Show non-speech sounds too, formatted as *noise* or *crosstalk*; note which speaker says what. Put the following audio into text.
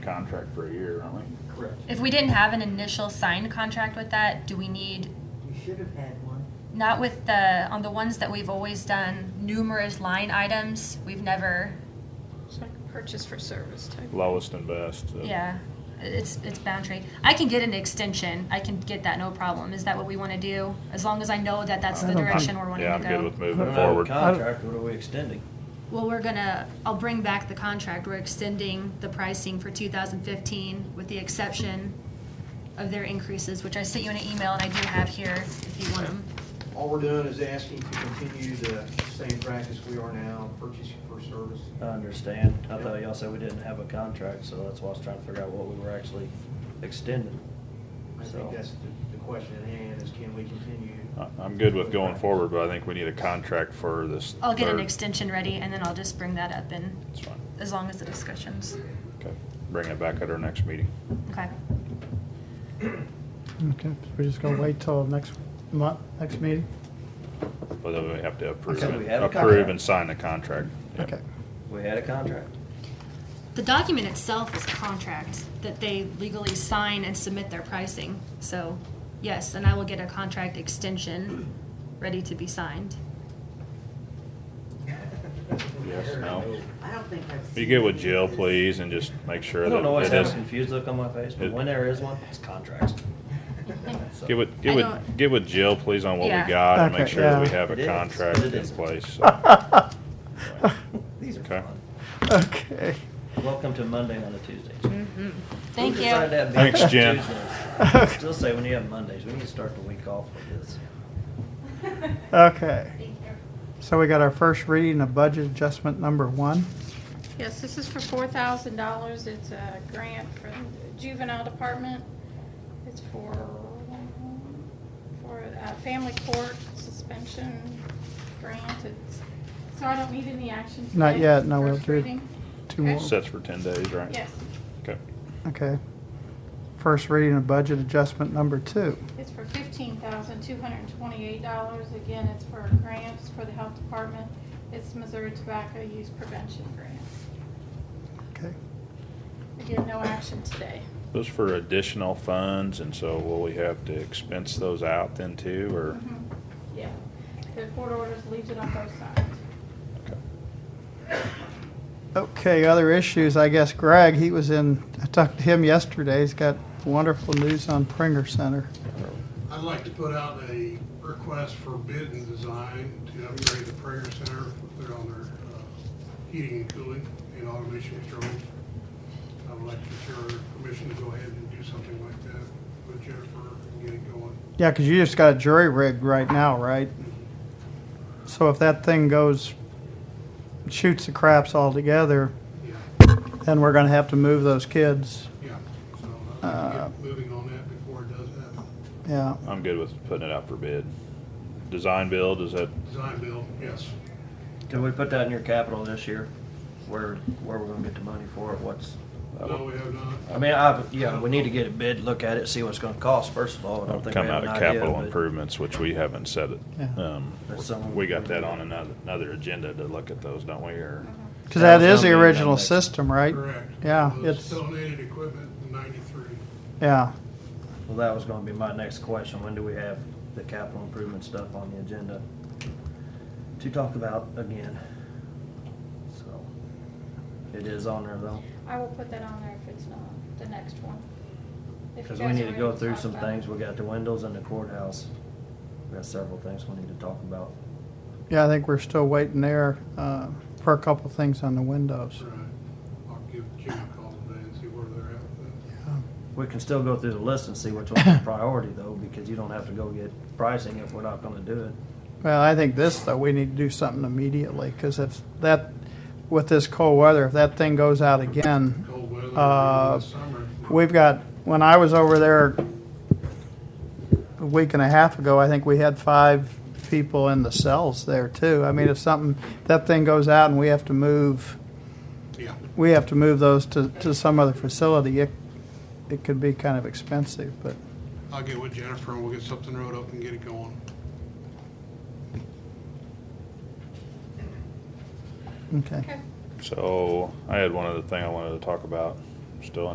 Speaker 1: contract for a year, aren't we?
Speaker 2: Correct.
Speaker 3: If we didn't have an initial signed contract with that, do we need,
Speaker 4: You should have had one.
Speaker 3: not with the, on the ones that we've always done, numerous line items, we've never,
Speaker 5: It's like a purchase for service type.
Speaker 1: Lowest and best. uh,
Speaker 3: yeah, it's, it's boundary. I can get an extension, I can get that, no problem. Is that what we want to do? As long as I know that that's the
Speaker 6: I don't-
Speaker 3: direction we're wanting
Speaker 1: Yeah,
Speaker 3: to
Speaker 1: I'm
Speaker 3: go.
Speaker 1: good with moving
Speaker 6: Moving on.
Speaker 1: forward.
Speaker 6: I don't-
Speaker 2: Contract, what are we extending?
Speaker 3: Well, we're gonna, I'll bring back the contract. We're extending the pricing for 2015 with the exception of their increases, which I sent you in an email and I do have here if you want them.
Speaker 7: All we're doing is asking to continue the same practice we are now, purchasing for service.
Speaker 2: I understand. I thought y'all said we didn't have a contract, so that's why I was trying to figure out what we were actually extending.
Speaker 7: I
Speaker 2: So-
Speaker 7: think that's the, the question at hand, is can we continue?
Speaker 1: I- I'm good with going
Speaker 7: *laughs*
Speaker 1: forward, but I think we need a contract for this.
Speaker 3: I'll get an
Speaker 1: third-
Speaker 3: extension ready and then I'll just bring that up and,
Speaker 1: That's fine.
Speaker 3: as long as the discussions.
Speaker 1: Okay. Bring it back at our next meeting.
Speaker 3: Okay.
Speaker 6: Okay, so we're just gonna wait till next month, next meeting?
Speaker 1: But then we have to approve
Speaker 2: Okay, we
Speaker 1: it,
Speaker 2: have a
Speaker 1: approve
Speaker 2: contract.
Speaker 1: and sign the contract. Yeah. *laughs*
Speaker 6: Okay.
Speaker 2: We had a contract.
Speaker 3: The document itself is a contract that they legally sign and submit their pricing. So, yes, and I will get a contract extension ready to be signed.
Speaker 1: Yes, no.
Speaker 4: I don't think I've.
Speaker 1: You
Speaker 4: seen
Speaker 1: get with
Speaker 4: it.
Speaker 1: Jill, please, and just make sure
Speaker 2: I
Speaker 1: that
Speaker 2: don't know what's
Speaker 1: it
Speaker 2: having
Speaker 1: is.
Speaker 2: a confused look on my face, but
Speaker 1: it-
Speaker 2: when there is one, it's contracts. So-
Speaker 1: Get with,
Speaker 3: I
Speaker 1: get with,
Speaker 3: don't-
Speaker 1: get with Jill, please, on what we
Speaker 3: Yeah.
Speaker 1: got and make
Speaker 6: Okay,
Speaker 1: sure that we
Speaker 6: yeah.
Speaker 1: have
Speaker 2: It
Speaker 1: a
Speaker 2: is,
Speaker 1: contract in
Speaker 2: it is. *laughs*
Speaker 1: place.
Speaker 2: These are
Speaker 1: Okay.
Speaker 2: fun.
Speaker 6: Okay.
Speaker 2: Welcome to Monday on a Tuesday.
Speaker 3: Mm-hmm. Thank
Speaker 2: Who
Speaker 3: you.
Speaker 2: decided to have
Speaker 1: Thanks,
Speaker 2: meetings
Speaker 1: Jen.
Speaker 2: Tuesdays?
Speaker 1: *laughs*
Speaker 2: Still say when you have Mondays, we need to start the week off with this.
Speaker 6: Okay. So we got our first reading of budget adjustment number one.
Speaker 5: Yes, this is for four thousand dollars. It's a grant from the juvenile department. It's for, for a family court suspension grant. It's, so I don't need any action today.
Speaker 6: Not yet, no, we'll
Speaker 5: First
Speaker 6: do-
Speaker 5: reading.
Speaker 6: Two more.
Speaker 1: Sets for ten days, right?
Speaker 5: Yes,
Speaker 1: Okay.
Speaker 6: Okay. First reading of budget adjustment number two.
Speaker 5: it's for fifteen thousand, two hundred and twenty-eight dollars. Again, it's for grants for the health department. It's Missouri Tobacco Use Prevention Grant.
Speaker 6: Okay.
Speaker 5: Again, no action today.
Speaker 1: Those for additional funds, and so will we have to expense those out then too, or?
Speaker 5: Mhm. Yeah, the court orders leaves it on both sides.
Speaker 1: Okay.
Speaker 6: Okay, other issues, I guess Greg, he was in, I talked to him yesterday. He's got wonderful news on Pringer Center.
Speaker 8: I'd like to put out a request for bid and design to upgrade the prayer center, put on their uh, heating and cooling and automation controls. I would like to share permission to go ahead and do something like that with Jennifer and get it going.
Speaker 6: Yeah, 'cause you just got jury rigged right now, right? So if that thing goes, shoots the craps altogether,
Speaker 8: Yeah,
Speaker 6: then we're gonna have to move those kids.
Speaker 8: yeah. So uh, I'd like to get moving on that before it does happen.
Speaker 6: Yeah,
Speaker 1: I'm good with putting it out for bid. Design build, is that,
Speaker 8: Design build, yes.
Speaker 2: Can we put that in your capital this year? Where, where we're gonna get the money for it, what's?
Speaker 8: No, we have not.
Speaker 2: I mean, I, yeah, we need to get a bid, look at it, see what's gonna cost first of all. I don't
Speaker 1: that'll
Speaker 2: think we
Speaker 1: come
Speaker 2: have
Speaker 1: out
Speaker 2: an
Speaker 1: of
Speaker 2: idea,
Speaker 1: capital
Speaker 2: but-
Speaker 1: improvements, which we haven't set it.
Speaker 6: Yeah.
Speaker 1: Um,
Speaker 2: That's something-
Speaker 1: We got that on another, another agenda to look at those, don't we, or?
Speaker 6: because that is the
Speaker 2: Sounds good.
Speaker 6: original system, right?
Speaker 8: Correct.
Speaker 6: Yeah,
Speaker 8: It was
Speaker 6: it's,
Speaker 8: Donated equipment in ninety-three.
Speaker 6: yeah,
Speaker 2: Well, that was gonna be my next question. When do we have the capital improvement stuff on the agenda to talk about again? So, it is on there though.
Speaker 5: I will put that on there if it's not, the next one. If you
Speaker 2: Because we
Speaker 5: guys
Speaker 2: need
Speaker 5: are
Speaker 2: to
Speaker 5: ready
Speaker 2: go through
Speaker 5: talk
Speaker 2: some
Speaker 5: about it.
Speaker 2: things. We got the windows in the courthouse. We got several things we need to talk about.
Speaker 6: yeah, I think we're still waiting there, uh, for a couple things on the windows.
Speaker 8: All right. I'll give Jim a call today and see where they're at with that.
Speaker 2: We can still go through the list and see which
Speaker 5: *coughs*
Speaker 2: one's a priority though, because you don't have to go get pricing if we're not gonna do it.
Speaker 6: Well, I think this, though, we need to do something immediately, because if that, with this cold weather, if that thing goes out again,
Speaker 8: cold weather
Speaker 6: Uh,
Speaker 8: in the summer.
Speaker 6: We've got, when I was over there a week and a half ago, I think we had five people in the cells there too. I mean, if something, that thing goes out and we have to move,
Speaker 8: Yeah,
Speaker 6: we have to move those to, to some other facility, it, it could be kind of expensive, but,
Speaker 8: I'll get with Jennifer and we'll get something wrote up and get it going.
Speaker 6: okay.
Speaker 5: Okay.
Speaker 1: So I had one other thing I wanted to talk about, still